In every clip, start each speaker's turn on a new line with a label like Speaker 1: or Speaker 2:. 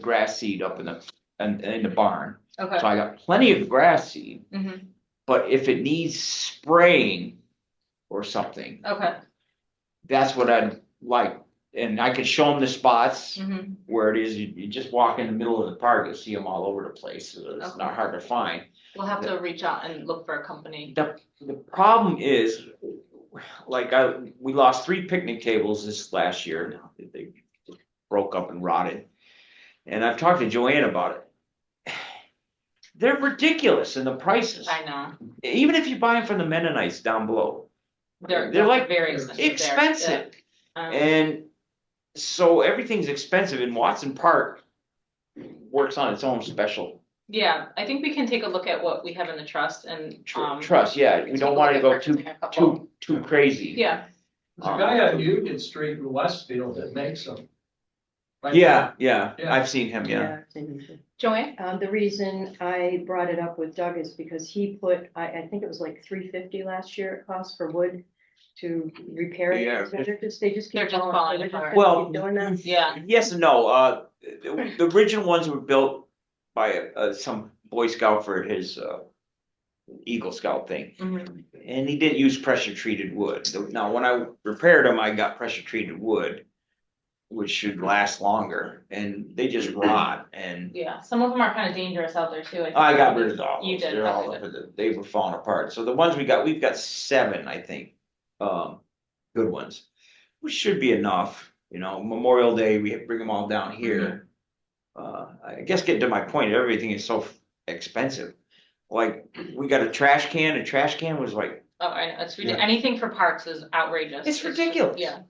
Speaker 1: grass seed up in the, in, in the barn.
Speaker 2: Okay.
Speaker 1: So I got plenty of grass seed,
Speaker 2: Mhm.
Speaker 1: but if it needs spraying or something,
Speaker 2: Okay.
Speaker 1: that's what I'd like. And I could show them the spots
Speaker 2: Mhm.
Speaker 1: where it is. You, you just walk in the middle of the park, you'll see them all over the place. so It's not
Speaker 2: Okay.
Speaker 1: hard to find.
Speaker 2: We'll have to reach out and look for a company.
Speaker 1: The problem is, like I, we lost three picnic tables this last year. They broke up and rotted. And I've talked to Joanne about it. They're ridiculous in the prices.
Speaker 2: I know.
Speaker 1: Even if you buy them from the Mennonites down below,
Speaker 2: They're,
Speaker 1: They're
Speaker 2: they're
Speaker 1: like
Speaker 2: very expensive. there.
Speaker 1: expensive.
Speaker 2: Yeah. Um,
Speaker 1: And so everything's expensive and Watson Park works on its own special
Speaker 2: Yeah, I think we can take a look at what we have in the trust and,
Speaker 1: tr-
Speaker 2: um.
Speaker 1: trust. Yeah, we
Speaker 2: take a
Speaker 1: don't want to
Speaker 2: look
Speaker 1: go
Speaker 2: at
Speaker 1: too,
Speaker 2: purchasing a couple.
Speaker 1: too, too crazy.
Speaker 2: Yeah,
Speaker 3: There's a guy on Union Street in Westfield that makes them. Like
Speaker 1: Yeah, yeah,
Speaker 3: Yeah.
Speaker 1: I've seen him, yeah.
Speaker 4: Yeah, and,
Speaker 2: Joanne?
Speaker 4: Um, the reason I brought it up with Doug is because he put, I, I think it was like three fifty last year it cost for wood to repair it.
Speaker 1: Yeah.
Speaker 4: They're just, they just
Speaker 2: They're
Speaker 4: keep
Speaker 2: just
Speaker 4: falling.
Speaker 2: falling
Speaker 4: They're just
Speaker 2: apart.
Speaker 4: keep
Speaker 1: Well, mm,
Speaker 4: Doing that.
Speaker 2: Yeah,
Speaker 1: Yes and no, uh, the the original ones were built by uh some Boy Scout for his uh. Eagle Scout thing,
Speaker 2: mhm,
Speaker 1: and he did use pressure treated wood, So now when I repaired them, I got pressure treated wood. Which should last longer, and they just rot, and
Speaker 2: yeah. Some of them are kind of dangerous out there too. think.
Speaker 1: Oh, I got rid of all
Speaker 2: You
Speaker 1: those,
Speaker 2: did,
Speaker 1: they're all
Speaker 2: okay,
Speaker 1: up at the, they were falling apart, so the ones we got, we've got seven, I think. Um, good ones, which should be enough, you know, Memorial Day, we bring them all down
Speaker 2: Mm-hmm.
Speaker 1: here. Uh, I guess getting to my point, everything is so expensive, like, we got a trash can, a trash can was like,
Speaker 2: Oh, I know, it's
Speaker 3: Yeah.
Speaker 2: ridiculous. Anything for parks is outrageous.
Speaker 1: it's
Speaker 2: just-
Speaker 1: ridiculous.
Speaker 2: Yeah,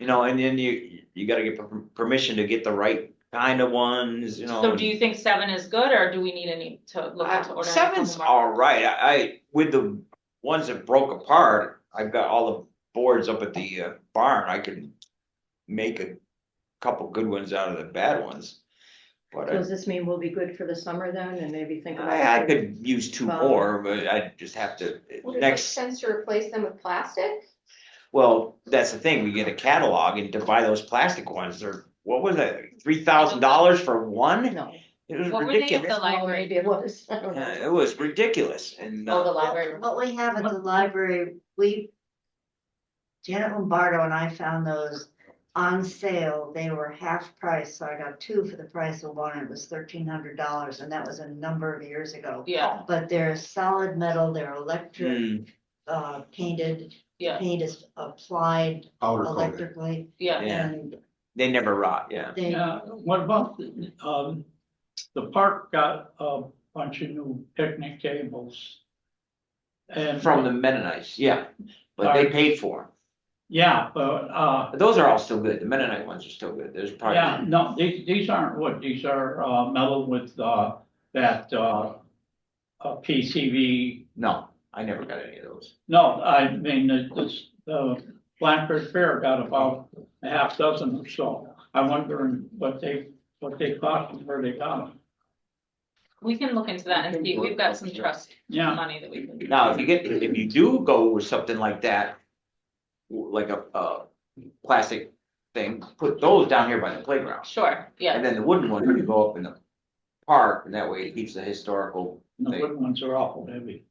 Speaker 1: You know, and then you, you gotta get per- permission to get the right kind of ones, you know.
Speaker 2: so
Speaker 1: and-
Speaker 2: do you think seven is good or do we need any to look
Speaker 1: I-
Speaker 2: into ordering? a couple
Speaker 1: Seven's
Speaker 2: more?
Speaker 1: all right. I, I, with the ones that broke apart, I've got all the boards up at the uh, barn. I could make a couple good ones out of the bad ones. But
Speaker 4: Does
Speaker 1: I,
Speaker 4: this mean we'll be good for the summer then and maybe think about?
Speaker 1: I I could use two
Speaker 4: Well-
Speaker 1: more, but I just have to,
Speaker 5: Would it make
Speaker 1: next,
Speaker 5: sense to replace them with plastic?
Speaker 1: well, that's the thing. We get a catalog and to buy those plastic ones. They're, what was it? Three thousand dollars for one?
Speaker 4: No.
Speaker 1: It was
Speaker 2: What were they at
Speaker 1: ridiculous.
Speaker 2: The
Speaker 4: Well,
Speaker 2: library.
Speaker 4: maybe it was. I don't know.
Speaker 1: Yeah, It was ridiculous and.
Speaker 2: Oh,
Speaker 1: uh,
Speaker 2: the library.
Speaker 6: What we have at the library, we. Janet Lombardo and I found those on sale. They were half price, so I got two for the price of one. It was thirteen hundred dollars and that was a number of years ago.
Speaker 2: Yeah,
Speaker 6: But they're solid metal, they're electric,
Speaker 1: mm,
Speaker 7: Hmm.
Speaker 6: uh, painted,
Speaker 2: yeah,
Speaker 6: paint is applied
Speaker 7: powder coated.
Speaker 6: electrically
Speaker 2: yeah.
Speaker 1: Yeah,
Speaker 6: and
Speaker 1: they never rot, yeah.
Speaker 6: they.
Speaker 3: Yeah, what about, the, um, the park got a bunch of new picnic tables. And.
Speaker 1: From the Mennonites, yeah, but they
Speaker 3: Alright.
Speaker 1: paid for
Speaker 3: Yeah, but, uh,
Speaker 1: them. Those are all still good. The Mennonite ones are still good. There's
Speaker 3: yeah,
Speaker 1: probably,
Speaker 3: no, these, these aren't wood, these are, uh, metal with, uh, that, uh, uh, PCV
Speaker 1: no, I never got any of those.
Speaker 3: No, I mean, it- this, the Blackbird Fair got about a half dozen or so. I'm wondering what they, what they cost and where they got them.
Speaker 2: We can look into that and see. We've got some trust
Speaker 3: Yeah,
Speaker 2: money that we can.
Speaker 1: Now, if you get, if you do go with something like that, w- like a, a plastic thing, put those down here by the playground.
Speaker 2: Sure, yeah.
Speaker 1: And then the wooden ones, you go up in the park, and that way it keeps the historical.
Speaker 3: the wooden ones are awful heavy.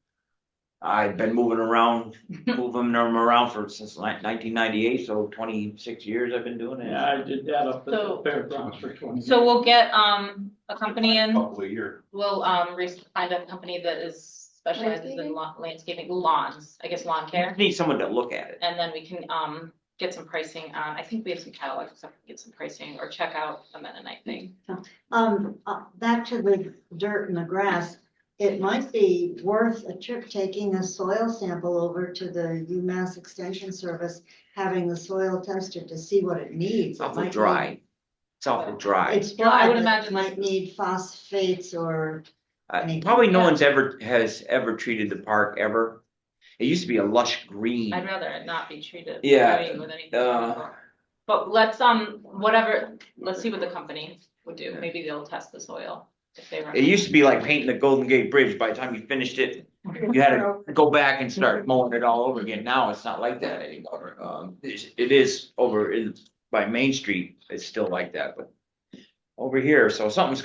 Speaker 1: I've been moving around, moving them around for, since nineteen ninety-eight, so twenty-six years I've been doing it.
Speaker 3: Yeah, I did that up at the
Speaker 2: So-
Speaker 3: fairgrounds for twenty.
Speaker 2: So we'll get, um, a company in,
Speaker 7: Couple of years.
Speaker 2: we'll, um, re- find a company that is specializes in
Speaker 5: Landscaping?
Speaker 2: lawn, landscaping lawns, I guess lawn care.
Speaker 1: Need someone to look at it.
Speaker 2: And then we can, um, get some pricing on, I think we have some catalogs, so we can get some pricing or check out a Mennonite thing.
Speaker 6: Um, uh, back to the dirt and the grass, it might be worth a trip taking a soil sample over to the UMass Extension Service, having the soil tested to see what it
Speaker 1: It's
Speaker 6: needs. It
Speaker 1: awful
Speaker 6: might
Speaker 1: dry. It's awful dry.
Speaker 6: need- It's
Speaker 2: Yeah, I
Speaker 6: dry,
Speaker 2: would
Speaker 6: but it
Speaker 2: imagine
Speaker 6: might need phosphates or,
Speaker 1: Uh,
Speaker 6: Anything.
Speaker 1: probably no
Speaker 2: Yeah.
Speaker 1: one's ever, has ever treated the park ever. It used to be a lush green.
Speaker 2: I'd rather it not be treated.
Speaker 1: Yeah,
Speaker 2: I mean, with anything.
Speaker 1: uh,
Speaker 2: But let's, um, whatever, let's see what the company would do.
Speaker 1: Yeah.
Speaker 2: Maybe they'll test the soil if they. run
Speaker 1: It used to be like painting the Golden Gate Bridge. By the time you finished it, you had to go back and start mowing it all over again. Now it's not like that anymore. Um, it's- it is over in, by Main Street, it's still like that, but over here, so something's